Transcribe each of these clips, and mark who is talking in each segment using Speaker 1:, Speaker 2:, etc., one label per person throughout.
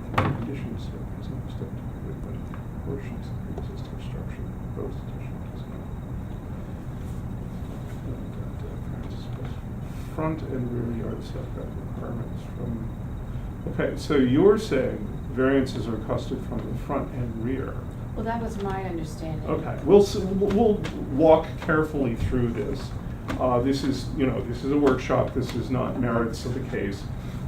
Speaker 1: issues here is understood to be with but portions of the existing structure that the proposed addition does not. And, uh, parents supposed- Front and rear yard setback requirements from, okay, so you're saying variances are custom from the front and rear.
Speaker 2: Well, that was my understanding.
Speaker 1: Okay, we'll, s- we'll walk carefully through this. Uh, This is, you know, this is a workshop, this is not merits of the case,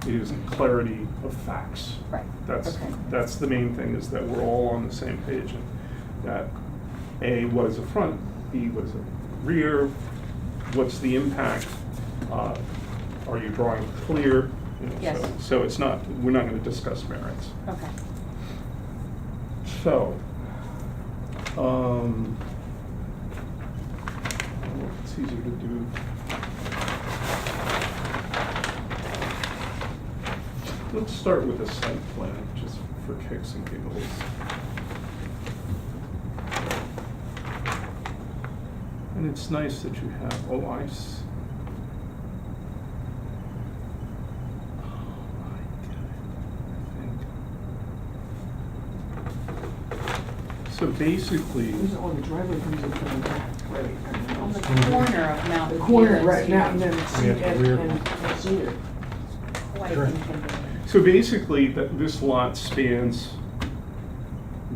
Speaker 1: it is clarity of facts.
Speaker 2: Right.
Speaker 1: That's,
Speaker 2: Okay.
Speaker 1: that's the main thing, is that we're all on the same page, and that A, what is a front, B, what is a rear, what's the impact? uh, Are you drawing clear? You know, so-
Speaker 2: Yes.
Speaker 1: So it's not, we're not gonna discuss merits.
Speaker 2: Okay.
Speaker 1: So, um, well, it's easier to do. Let's start with a site plan, just for kicks and giggles. And it's nice that you have, oh, I s- Oh, I get it, I think. So basically,
Speaker 3: Who's on the driveway, comes in from the back, right? and
Speaker 2: On the
Speaker 3: then-
Speaker 2: corner of Mount
Speaker 3: The
Speaker 2: View.
Speaker 3: corner, right,
Speaker 2: it's
Speaker 3: now, and then
Speaker 2: huge.
Speaker 3: see,
Speaker 4: Yeah, the
Speaker 3: and,
Speaker 4: rear.
Speaker 3: and Cedar.
Speaker 2: Quite
Speaker 4: Sure.
Speaker 2: inconvenient.
Speaker 1: so basically, that this lot spans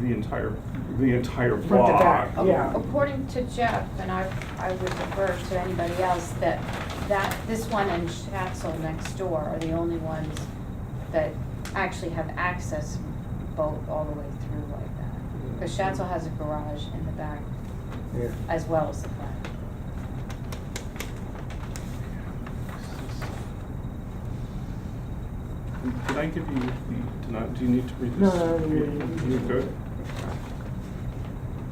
Speaker 1: the entire, the entire
Speaker 3: Front to back,
Speaker 1: block.
Speaker 3: Yeah.
Speaker 2: Um, According to Jeff, and I, I would refer to anybody else, that, that, this one and Chatzel next door are the only ones that actually have access boat all the way through like that. Because Chatzel has a garage in the back
Speaker 4: Yeah.
Speaker 2: as well as the front.
Speaker 1: Did I give you the, do not, do you need to read
Speaker 3: No,
Speaker 1: this?
Speaker 3: no, no, no, no.
Speaker 1: You good?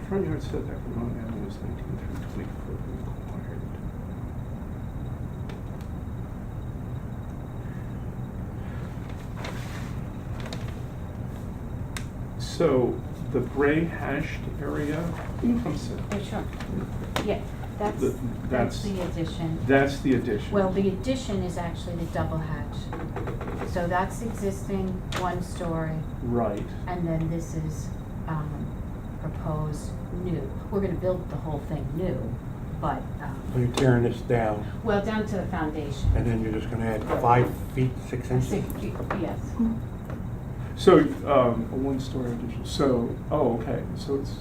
Speaker 1: Front yard setback from Mount Avenue is nineteen through twenty-four required. So the gray hashed area, you can come sit.
Speaker 2: Oh, sure. Yeah, that's,
Speaker 1: The-
Speaker 2: that's
Speaker 1: that's-
Speaker 2: the addition.
Speaker 1: That's the addition.
Speaker 2: Well, the addition is actually the double hatch. So that's existing one story,
Speaker 1: Right.
Speaker 2: and then this is, um, proposed new. We're gonna build the whole thing new, but,
Speaker 4: So
Speaker 2: um,
Speaker 4: you're tearing this down,
Speaker 2: well, down to the foundation.
Speaker 4: and then you're just gonna add five feet, six
Speaker 2: Uh, six-
Speaker 4: inches?
Speaker 2: Yes,
Speaker 1: So, um, a one-story addition, so, oh, okay, so it's,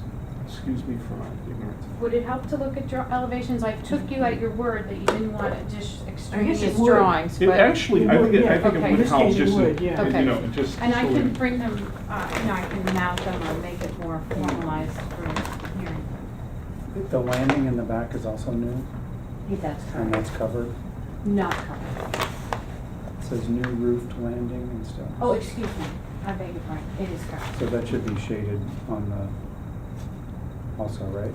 Speaker 1: excuse me for my ignorance.
Speaker 2: would it help to look at your elevations? I took you at your word that you didn't want addition, extraneous
Speaker 3: would.
Speaker 2: drawings,
Speaker 1: It
Speaker 2: but,
Speaker 1: actually, I think, it- I think
Speaker 2: Okay.
Speaker 1: it would
Speaker 2: This
Speaker 1: help
Speaker 3: case it
Speaker 1: just, to-
Speaker 3: would, yeah.
Speaker 1: you know,
Speaker 2: Okay.
Speaker 1: just.
Speaker 2: and I
Speaker 1: so we-
Speaker 2: can bring them, uh, you know, I can mount them or make it more formalized for hearing.
Speaker 5: The landing in the back is also new,
Speaker 2: Yeah, that's
Speaker 5: and that's
Speaker 2: correct.
Speaker 5: covered.
Speaker 2: Not covered.
Speaker 5: It says new roofed landing and stuff.
Speaker 2: Oh, excuse me, I beg your pardon, it is correct.
Speaker 5: So that should be shaded on the, also, right?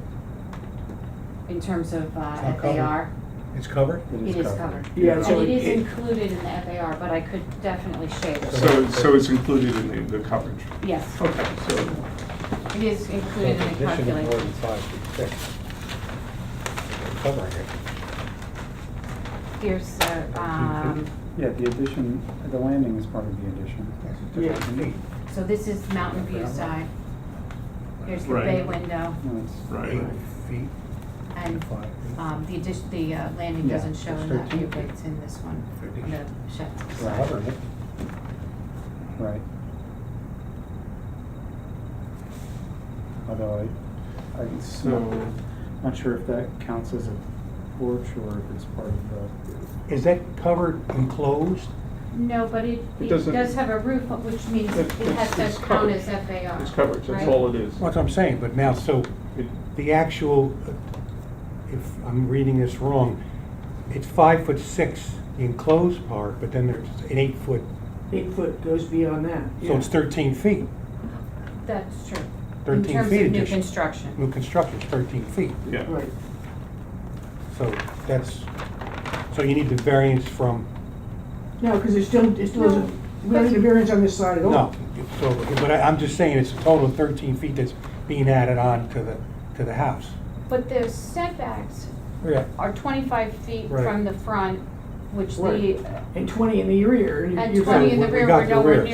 Speaker 2: In terms of uh,
Speaker 4: Not covered.
Speaker 2: FAR,
Speaker 4: It's covered?
Speaker 2: it is covered.
Speaker 3: Yeah,
Speaker 2: And
Speaker 3: so
Speaker 2: it is
Speaker 3: it-
Speaker 2: included in the FAR, but I could definitely shade it.
Speaker 1: So, Oh. so it's included in the, the coverage.
Speaker 2: Yes,
Speaker 1: Okay, so,
Speaker 2: it is
Speaker 4: So
Speaker 2: included in the
Speaker 4: addition is More than
Speaker 2: calculation.
Speaker 4: five feet six. They're Covering it.
Speaker 2: Here's, uh, um,
Speaker 5: Yeah, the addition, the landing is part of the addition.
Speaker 3: Yeah.
Speaker 4: Eight.
Speaker 2: so this is Mountain View side. Here's the bay
Speaker 1: Right.
Speaker 2: window,
Speaker 5: No, it's-
Speaker 1: right,
Speaker 4: Eight
Speaker 1: right.
Speaker 4: feet
Speaker 2: and
Speaker 4: and five feet.
Speaker 2: um, the addition, the uh, landing
Speaker 5: Yeah,
Speaker 2: doesn't show in that view,
Speaker 4: 13.
Speaker 2: but it's in this one, on the Shetland
Speaker 4: They're
Speaker 2: side.
Speaker 4: Covering it.
Speaker 5: Right. Although I, I'm not,
Speaker 1: so,
Speaker 5: not sure if that counts as a porch or if it's part of the,
Speaker 4: Is that covered enclosed?
Speaker 2: No, but it,
Speaker 1: It
Speaker 2: it
Speaker 1: doesn't-
Speaker 2: does have a roof, which means it
Speaker 1: It- it's-
Speaker 2: has
Speaker 1: it's
Speaker 2: to count
Speaker 1: covered.
Speaker 2: as FAR.
Speaker 1: it's coverage, that's
Speaker 2: right?
Speaker 1: all it is.
Speaker 4: That's what I'm saying, but now, so
Speaker 1: It-
Speaker 4: the actual, uh, if I'm reading this wrong, it's five foot six, the enclosed part, but then there's an eight foot,
Speaker 3: Eight foot goes beyond that, yeah.
Speaker 4: so it's thirteen feet.
Speaker 2: That's true. In
Speaker 4: 13
Speaker 2: terms
Speaker 4: feet
Speaker 2: of new
Speaker 4: addition.
Speaker 2: construction.
Speaker 4: New construction's thirteen feet.
Speaker 1: Yeah,
Speaker 3: Right,
Speaker 4: So that's, so you need the variance from,
Speaker 3: no, because there's still, it still isn't, we don't need a variance on this side at all.
Speaker 4: no, so, but I- I'm just saying, it's a total of thirteen feet that's being added on to the, to the house.
Speaker 2: But the setbacks
Speaker 4: Yeah.
Speaker 2: are twenty-five feet
Speaker 4: Right.
Speaker 2: from the front, which the,
Speaker 3: Right. And twenty in the rear.
Speaker 2: and twenty
Speaker 3: you're fine.
Speaker 2: in the
Speaker 4: we
Speaker 2: rear
Speaker 4: got
Speaker 2: were
Speaker 4: the
Speaker 2: nowhere
Speaker 4: rear.
Speaker 2: near.